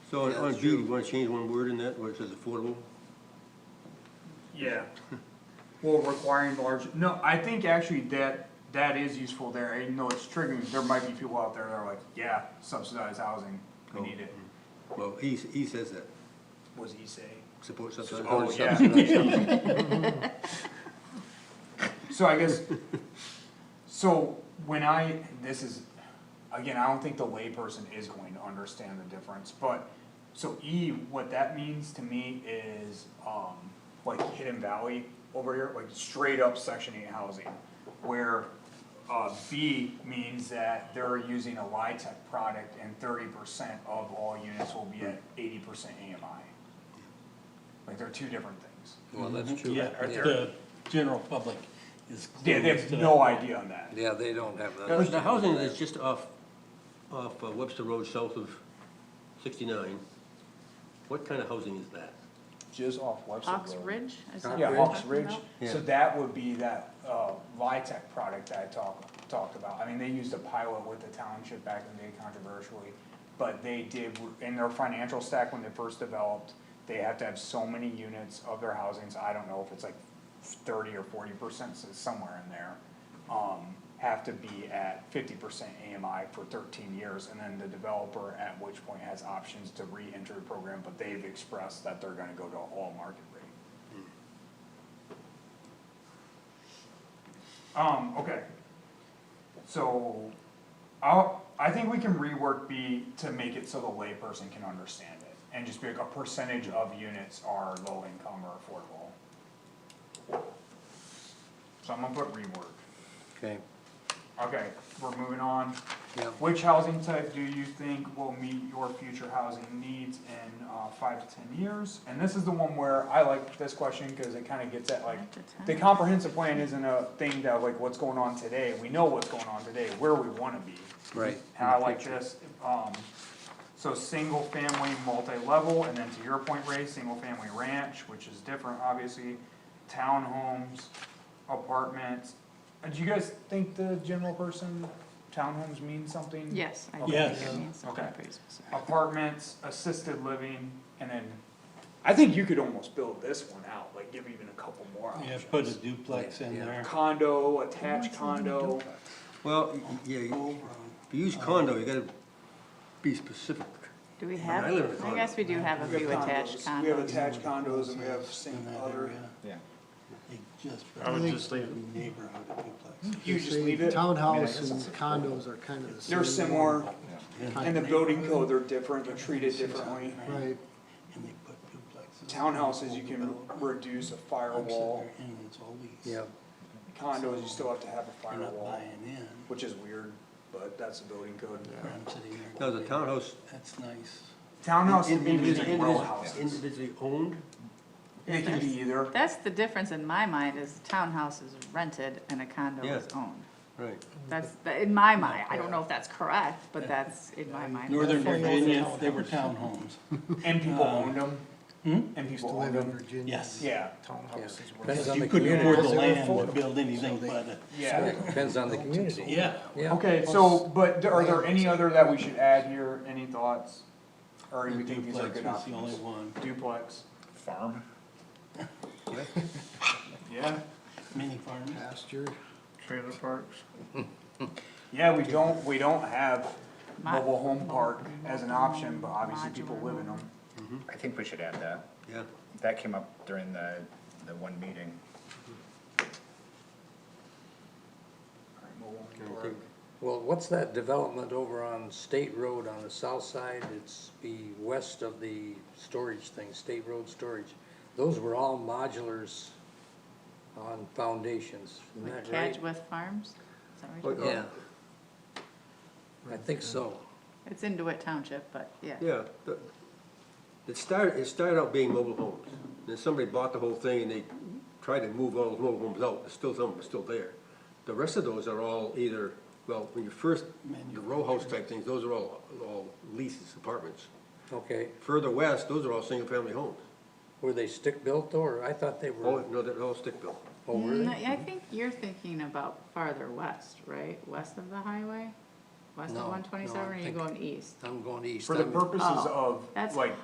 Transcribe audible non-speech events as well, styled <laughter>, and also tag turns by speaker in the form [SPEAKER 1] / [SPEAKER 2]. [SPEAKER 1] So on-
[SPEAKER 2] Yeah,
[SPEAKER 1] on
[SPEAKER 2] that's
[SPEAKER 1] B, you
[SPEAKER 2] true.
[SPEAKER 1] wanna change one word in that, where it says affordable?
[SPEAKER 3] Yeah. Well, requiring large, no, I think actually that, that is useful there, even though it's triggering, there might be people out there that are like, yeah, subsidized housing, we need it.
[SPEAKER 1] Well, E, E says that,
[SPEAKER 3] Was he say?
[SPEAKER 1] support subsidized.
[SPEAKER 3] Oh,
[SPEAKER 1] housing,
[SPEAKER 3] yeah.
[SPEAKER 1] subsidized housing.
[SPEAKER 3] So I guess, so when I, this is, again, I don't think the layperson is going to understand the difference, but. So E, what that means to me is, um, like Hidden Valley over here, like straight up section eight housing. Where, uh, B means that they're using a LIHTC product and thirty percent of all units will be at eighty percent AMI. Like they're two different things.
[SPEAKER 2] Well, that's true.
[SPEAKER 4] Yeah, the general public is.
[SPEAKER 3] They, they
[SPEAKER 4] clueless
[SPEAKER 3] have
[SPEAKER 4] to
[SPEAKER 3] no idea on that.
[SPEAKER 2] Yeah, they don't have that.
[SPEAKER 1] <laughs> <laughs> Now, The housing that's just off, off uh, Webster Road, south of sixty-nine, what kind of housing is that?
[SPEAKER 3] Just off Webster
[SPEAKER 5] Ox
[SPEAKER 3] Road.
[SPEAKER 5] Ridge? Is that what
[SPEAKER 3] Yeah,
[SPEAKER 5] you're
[SPEAKER 3] Hawks
[SPEAKER 5] talking
[SPEAKER 3] Ridge,
[SPEAKER 5] about?
[SPEAKER 1] Yeah.
[SPEAKER 3] so that would be that, uh, Vitek product that I talked, talked about, I mean, they used a pilot with the township back in the day controversially. But they did, in their financial stack when they first developed, they have to have so many units of their housings, I don't know if it's like thirty or forty percent, so it's somewhere in there. Um, have to be at fifty percent AMI for thirteen years, and then the developer at which point has options to re-enter the program, but they've expressed that they're gonna go to all market rate. Um, okay. So, I'll, I think we can rework B to make it so the layperson can understand it. And just be like, a percentage of units are low income or affordable. So I'm gonna put rework.
[SPEAKER 2] Okay,
[SPEAKER 3] Okay, we're moving on.
[SPEAKER 2] yeah.
[SPEAKER 3] Which housing type do you think will meet your future housing needs in uh, five to ten years? And this is the one where I like this question because it kind of gets at like,
[SPEAKER 5] Five to 10.
[SPEAKER 3] the comprehensive plan isn't a thing that like what's going on today. We know what's going on today, where we want to be.
[SPEAKER 2] Right.
[SPEAKER 3] And I like this, um, so single family, multi-level, and then to your point, Ray, single family ranch, which is different, obviously. Townhomes, apartments, Uh, do you guys think the general person, townhomes mean something?
[SPEAKER 5] Yes, I do
[SPEAKER 4] Yes.
[SPEAKER 5] think it means something
[SPEAKER 3] Okay.
[SPEAKER 5] pretty specific.
[SPEAKER 3] Apartments, assisted living, and then, I think you could almost build this one out, like give even a couple more
[SPEAKER 4] Yeah,
[SPEAKER 3] options.
[SPEAKER 4] put a duplex in
[SPEAKER 2] Yeah.
[SPEAKER 4] there.
[SPEAKER 3] Condo, attached condo,
[SPEAKER 1] Well, y- y- yeah, you- if you use condo, you gotta be specific.
[SPEAKER 5] Do we have,
[SPEAKER 1] I live in a
[SPEAKER 5] I guess we do have a
[SPEAKER 3] we
[SPEAKER 5] few
[SPEAKER 3] have
[SPEAKER 5] attached
[SPEAKER 3] condos, we have
[SPEAKER 5] condos.
[SPEAKER 3] attached condos and we have same other.
[SPEAKER 6] Yeah.
[SPEAKER 4] They just.
[SPEAKER 7] I would just leave it.
[SPEAKER 4] Neighborhood duplex.
[SPEAKER 3] You just
[SPEAKER 8] Say
[SPEAKER 3] leave it,
[SPEAKER 8] Townhouse and condos are kind of the same.
[SPEAKER 3] they're similar,
[SPEAKER 4] Yeah.
[SPEAKER 3] and the building code, they're different, they're treated differently.
[SPEAKER 8] Right.
[SPEAKER 4] And they put duplexes.
[SPEAKER 3] Townhouses, you can
[SPEAKER 4] Development.
[SPEAKER 3] reduce a
[SPEAKER 4] I'm sitting
[SPEAKER 3] firewall,
[SPEAKER 4] there And it's all leased.
[SPEAKER 2] Yeah,
[SPEAKER 3] condos, you still have to have a
[SPEAKER 4] You're not
[SPEAKER 3] firewall,
[SPEAKER 4] buying in.
[SPEAKER 3] which is weird, but that's the building code.
[SPEAKER 4] Where I'm sitting there
[SPEAKER 1] Now, the
[SPEAKER 4] going,
[SPEAKER 1] townhouse.
[SPEAKER 4] That's nice.
[SPEAKER 3] Townhouse
[SPEAKER 1] in-
[SPEAKER 3] can be
[SPEAKER 1] individ-
[SPEAKER 3] like
[SPEAKER 1] individ-
[SPEAKER 3] row houses,
[SPEAKER 1] Individually owned,
[SPEAKER 3] it can be either.
[SPEAKER 5] That's the difference in my mind is townhouse is rented and a condo is
[SPEAKER 1] Yeah.
[SPEAKER 5] owned.
[SPEAKER 1] right.
[SPEAKER 5] That's, the- in my mind, I don't know if that's correct, but that's in my mind.
[SPEAKER 4] Northern
[SPEAKER 5] That's-
[SPEAKER 4] Virginia, they were townhomes.
[SPEAKER 3] <laughs>
[SPEAKER 4] Hmm?
[SPEAKER 3] And people owned them. And
[SPEAKER 8] Used to
[SPEAKER 3] Um, people
[SPEAKER 8] live
[SPEAKER 3] owned
[SPEAKER 8] in
[SPEAKER 3] them.
[SPEAKER 8] Virginia.
[SPEAKER 4] Yes.
[SPEAKER 3] Hmm? Yeah,
[SPEAKER 2] Townhouses
[SPEAKER 4] Because you couldn't afford the land to build anything but a.
[SPEAKER 3] yeah.
[SPEAKER 2] Depends on the community.
[SPEAKER 4] Yeah.
[SPEAKER 2] Yeah.
[SPEAKER 3] Okay, so, but are there any other that we should add here? Any thoughts? Or do we think these are
[SPEAKER 4] Duplex
[SPEAKER 3] good
[SPEAKER 4] was the only
[SPEAKER 3] options?
[SPEAKER 4] one,
[SPEAKER 3] Duplex.
[SPEAKER 6] Farm?
[SPEAKER 3] <laughs> Yeah.
[SPEAKER 4] mini farms.
[SPEAKER 8] Pasture.
[SPEAKER 3] Trailer parks. Yeah, we don't, we don't have
[SPEAKER 5] Mo-
[SPEAKER 3] mobile home park as an option, but obviously people live in them.
[SPEAKER 6] I think we should add that.
[SPEAKER 1] Yeah,
[SPEAKER 6] That came up during the, the one meeting.
[SPEAKER 3] Alright, mobile
[SPEAKER 1] I
[SPEAKER 3] home park.
[SPEAKER 1] think-
[SPEAKER 2] Well, what's that development over on State Road on the south side? It's the west of the storage thing, State Road Storage. Those were all modulars on foundations, isn't
[SPEAKER 5] Like
[SPEAKER 2] that right?
[SPEAKER 5] Cadgwith Farms? Is that what you're
[SPEAKER 1] Like,
[SPEAKER 5] talking
[SPEAKER 1] uh,
[SPEAKER 2] Yeah. I think so.
[SPEAKER 5] about? It's in DeWitt Township, but yeah.
[SPEAKER 1] Yeah, the- it started, it started out being mobile homes. Then somebody bought the whole thing and they tried to move all those mobile homes out, there's still some of them are still there. The rest of those are all either, well, when you first, the row house type things, those are all, all leases, apartments.
[SPEAKER 2] Okay,
[SPEAKER 1] Further west, those are all single-family homes.
[SPEAKER 2] were they stick-built though, or I thought they
[SPEAKER 1] All,
[SPEAKER 2] were,
[SPEAKER 1] no, they're all stick-built.
[SPEAKER 2] oh, were
[SPEAKER 5] Mm,
[SPEAKER 2] they?
[SPEAKER 5] I think you're thinking about farther west, right? West of the highway?
[SPEAKER 3] west
[SPEAKER 5] No,
[SPEAKER 3] of
[SPEAKER 5] no,
[SPEAKER 3] one twenty-seven,
[SPEAKER 5] I
[SPEAKER 3] or you
[SPEAKER 5] think-
[SPEAKER 3] going east?
[SPEAKER 5] I'm going east.
[SPEAKER 2] For the
[SPEAKER 5] I'm-
[SPEAKER 2] purposes
[SPEAKER 3] Oh,
[SPEAKER 2] of,
[SPEAKER 3] that's
[SPEAKER 2] like,